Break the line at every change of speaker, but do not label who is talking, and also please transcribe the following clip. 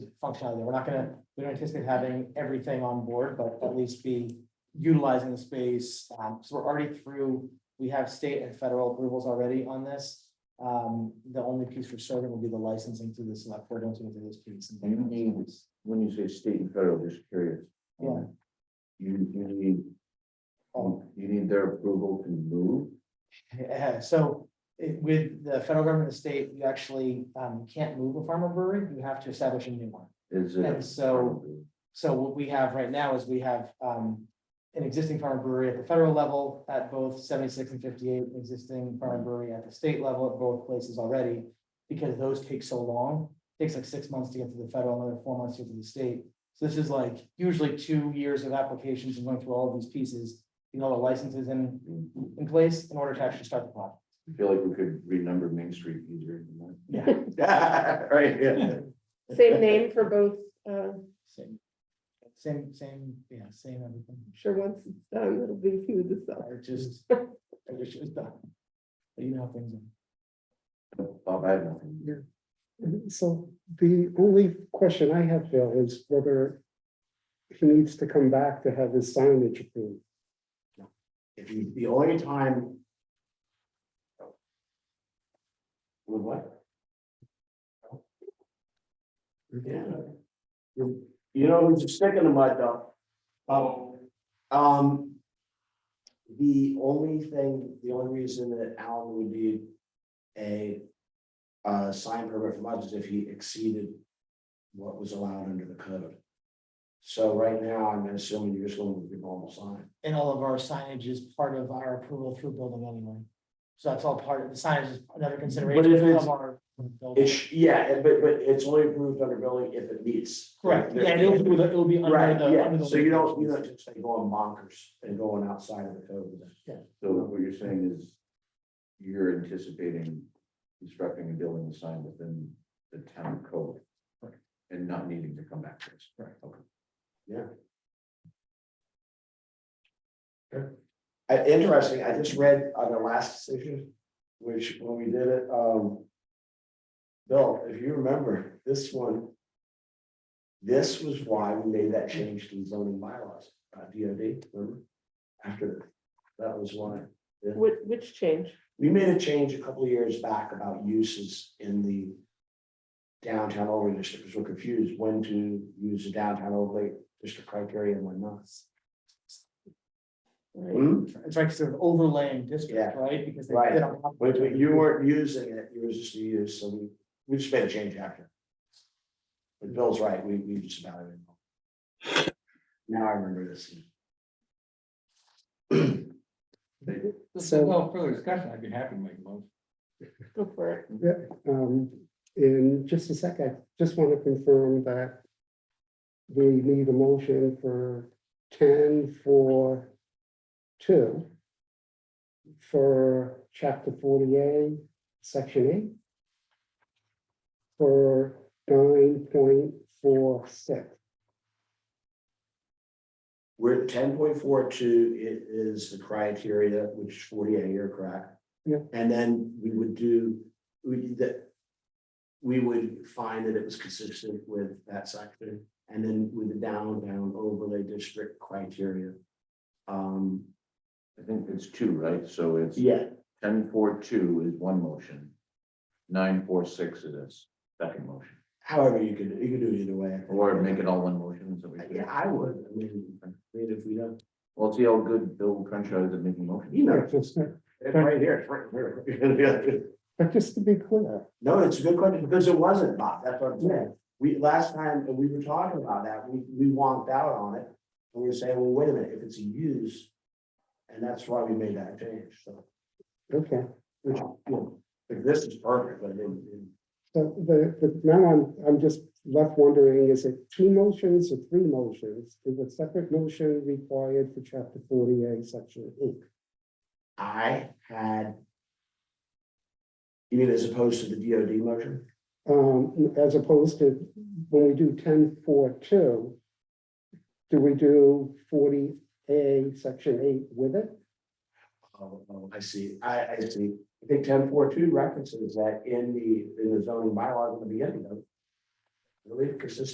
functionality. We're not gonna, we don't anticipate having everything on board, but at least be utilizing the space. Um, so we're already through, we have state and federal approvals already on this. Um, the only piece for certain will be the licensing through the select board, don't do this piece.
You need, when you say state and federal, just curious.
Yeah.
You, you need,
Oh.
you need their approval to move?
Yeah, so it- with the federal government, and the state, you actually um can't move a farmer brewery, you have to establish a new one.
Is it?
And so- So what we have right now is we have um an existing farm brewery at the federal level at both seventy-six and fifty-eight, an existing farm brewery at the state level at both places already. Because those take so long, takes like six months to get to the federal, another four months to get to the state. So this is like usually two years of applications and going through all of these pieces, you know, the licenses in in place in order to actually start the project.
I feel like we could renumber Main Street easier than
Yeah.
that. Right, yeah.
Same name for both, uh, I'm
Same, same, same, yeah, same everything.
sure once it's done, it'll be food to sell.
I just, I wish it was done. But you know how things are.
Bob, I have nothing.
So the only question I have, Bill, is whether he needs to come back to have his signage approved.
If you, the only time. With what? Yeah. You you know who's a stick in the mud though? Oh. Um. The only thing, the only reason that Alan would need a. Uh, sign permit from us is if he exceeded what was allowed under the code. So right now, I'm assuming you're just going with your normal sign.
And all of our signage is part of our approval through building anyway. So that's all part of the signage is another consideration.
if it's-
of our building.
It's, yeah, and- but, but it's only approved under building if it meets.
Correct, yeah, and it'll be, the- it'll be under
Right,
the. under
yeah,
the
so you don't, you don't just say going bonkers and going outside of the code.
Yeah.
So what you're saying is you're anticipating constructing and building the sign within the town code and not needing to come back to us. Right. Okay. Yeah. Uh, Interesting, I just read on the last decision, which when we did it, um, Bill, if you remember, this one this was why we made that change to the zoning bylaws, uh, DOD, remember? After, that was why.
Which, which change?
We made a change a couple of years back about uses in the downtown overlay district, because we're confused when to use the downtown overlay district criteria and when not.
Right.
Hmm?
It's like sort of overlaying district,
Yeah.
right? Because they
Right.
did on top of
But but
it.
you weren't using it, you were just used, so we, we just made a change after. But Bill's right, we, we just about it. Now I remember this.
So-
Well, further discussion, I'd be happy to make a motion.
Go for it.
Um, in just a sec, I just want to confirm that we need a motion for ten for two for chapter forty-eight, section eight, for nine point four six.
We're ten point four two, it is the criteria, which is forty-eight, you're correct.
Yeah.
And then we would do, we did that. We would find that it was consistent with that section, and then with the downtown overlay district criteria. Um,
I think it's two, right? So it's
yeah,
ten four two is one motion. Nine four six is a second motion,
however you could, you could do it either way.
or make it all one motion, so we
Yeah,
could,
I would, I mean, I mean, if we don't,
well, see how good Bill Crenshaw is at making motions.
you know,
But
it's right here, it's right here.
just to be clear,
No, it's a good question, because it wasn't, Bob, that's what I'm saying. We, last time, we were talking about that, we, we wonked out on it. And we were saying, well, wait a minute, if it's a use, and that's why we made that change, so.
okay.
Which, you know, like, this is perfect, but then,
So the, the, now I'm, I'm just left wondering, is it two motions or three motions? Is a separate motion required for chapter forty-eight, section eight?
I had. You mean as opposed to the DOD motion?
Um, as opposed to when we do ten four two, do we do forty A, section eight with it?
Oh, oh, I see, I, I see. I think ten four two references that in the, in the zoning bylaws in the beginning, though. Really consistent